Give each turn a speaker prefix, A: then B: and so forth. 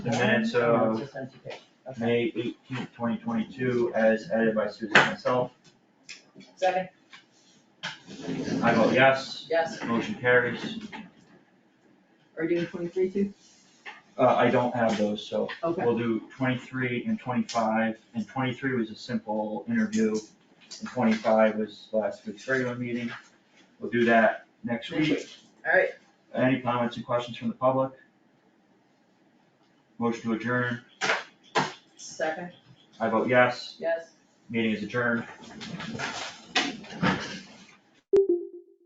A: the minutes
B: Oh,
A: of
B: it's just empty page. Okay.
A: May eighteenth, twenty twenty-two, as edited by Susan and myself.
B: Second,
A: I vote yes,
B: yes,
A: motion carries.
B: are you doing twenty-three too?
A: Uh, I don't have those, so
B: Okay,
A: we'll do twenty-three and twenty-five, and twenty-three was a simple interview, and twenty-five was last week's regular meeting. We'll do that next
B: Next
A: week.
B: alright,
A: Any comments and questions from the public? Motion to adjourn,
B: second,
A: I vote yes,
B: yes.
A: meeting is adjourned.